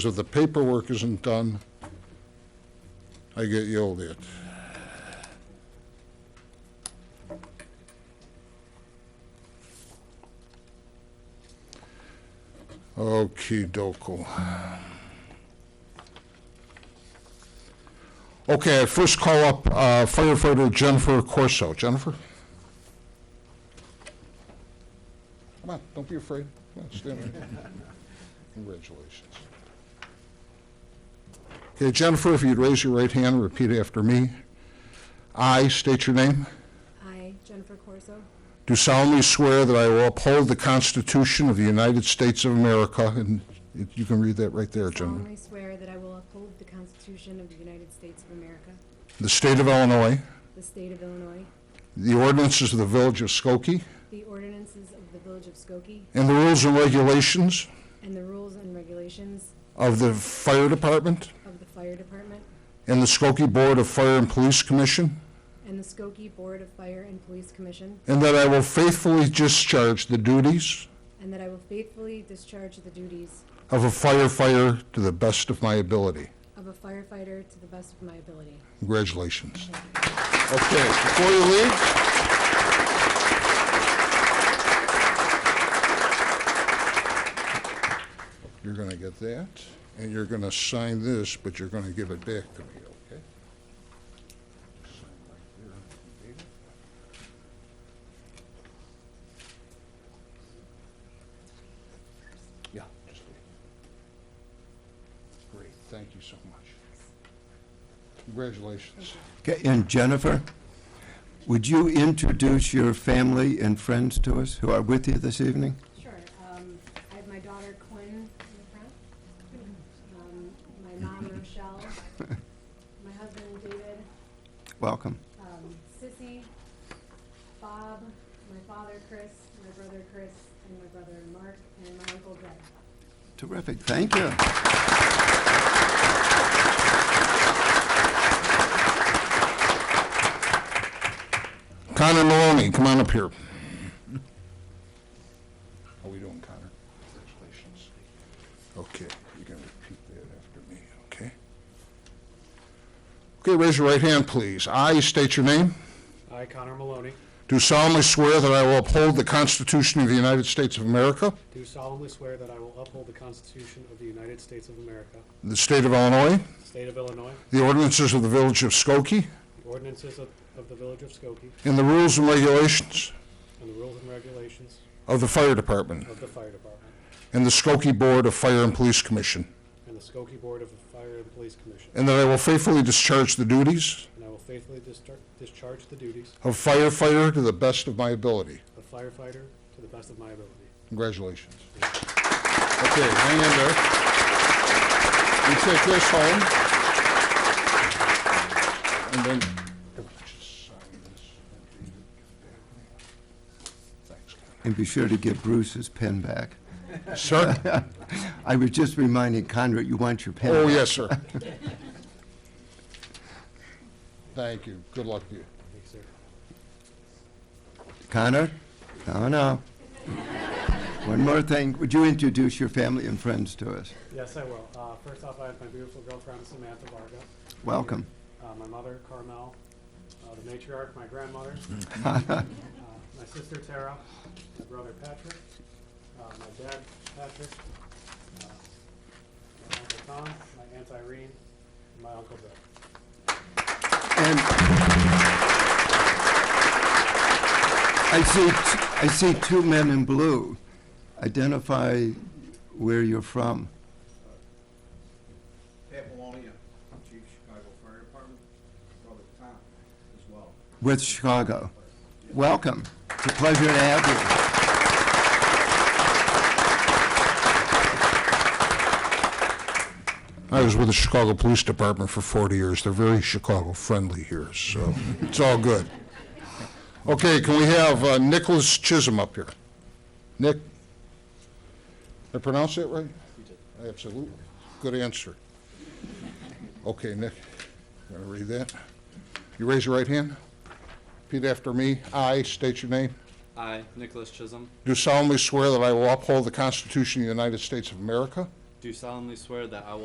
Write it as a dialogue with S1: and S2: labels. S1: If the paperwork isn't done, I get yelled at. Okay, dokie. Okay, I first call up uh, firefighter Jennifer Corso. Jennifer? Come on, don't be afraid. Come on, stand there. Congratulations. Okay, Jennifer, if you'd raise your right hand, and repeat after me. I state your name.
S2: I, Jennifer Corso,
S1: Do solemnly swear that I will uphold the Constitution of the United States of America, and it- you can read that right there, Jennifer.
S2: solemnly swear that I will uphold the Constitution of the United States of America,
S1: The state of Illinois,
S2: the state of Illinois,
S1: the ordinances of the village of Skokie,
S2: the ordinances of the Village of Skokie,
S1: and the rules and regulations
S2: and the rules and regulations
S1: of the fire department
S2: of the Fire Department
S1: and the Skokie Board of Fire and Police Commission,
S2: and the Skokie Board of Fire and Police Commission,
S1: and that I will faithfully discharge the duties
S2: and that I will faithfully discharge the duties
S1: of a firefighter to the best of my ability.
S2: of a firefighter to the best of my ability.
S1: Congratulations. Okay, before you leave. You're gonna get that, and you're gonna sign this, but you're gonna give it back to me, okay? Sign right there, David. Yeah, just leave. Great, thank you so much. Congratulations.
S3: Okay, and Jennifer, would you introduce your family and friends to us who are with you this evening?
S2: Sure. Um, I have my daughter Quinn in the front, um, my mom Rochelle, my husband David,
S3: Welcome.
S2: um, Sissy, Bob, my father Chris, my brother Chris, and my brother Mark, and my uncle Greg.
S3: Terrific, thank you.
S1: Connor Maloney, come on up here. How we doing, Connor? Congratulations. Okay, you can repeat that after me, okay? Okay, raise your right hand, please. I state your name.
S4: I, Connor Maloney,
S1: Do solemnly swear that I will uphold the Constitution of the United States of America,
S4: do solemnly swear that I will uphold the Constitution of the United States of America,
S1: the state of Illinois,
S4: State of Illinois,
S1: the ordinances of the village of Skokie,
S4: the ordinances of, of the Village of Skokie,
S1: and the rules and regulations
S4: and the rules and regulations
S1: of the fire department
S4: of the Fire Department,
S1: and the Skokie Board of Fire and Police Commission,
S4: and the Skokie Board of Fire and Police Commission,
S1: and that I will faithfully discharge the duties
S4: and I will faithfully distar- discharge the duties
S1: of firefighter to the best of my ability.
S4: of firefighter to the best of my ability.
S1: Congratulations. Okay, hang in there. You take this home. And then. Thanks,
S3: And be sure to give Bruce his pen back.
S1: Connor. Sir?
S3: I was just reminding Conrad, you want your pen
S1: Oh,
S3: back.
S1: yes, sir. Thank you. Good luck to you.
S4: Thank you, sir.
S3: Conrad? No, no. One more thing, would you introduce your family and friends to us?
S4: Yes, I will. Uh, first off, I have my beautiful girlfriend Samantha Varga,
S3: Welcome.
S4: uh, my mother Carmel, uh, the matriarch, my grandmother, Uh, my sister Tara, my brother Patrick, uh, my dad Patrick, uh, my uncle Tom, my aunt Irene, and my uncle Bill.
S3: And I see, I see two men in blue. Identify where you're from.
S5: Pat Maloney, uh, Chief Chicago Fire Department, brother Tom as well.
S3: with Chicago. Welcome. It's a pleasure to have
S1: I was with the Chicago Police Department for 40 years. They're very Chicago-friendly here, so it's all good. Okay, can we have uh, Nicholas Chisholm up here? Nick? Did I pronounce that right? Absolutely. Good answer. Okay, Nick, you want to read that? You raise your right hand. Repeat after me. I state your name.
S6: I, Nicholas Chisholm,
S1: Do solemnly swear that I will uphold the Constitution of the United States of America,
S6: do solemnly swear that I will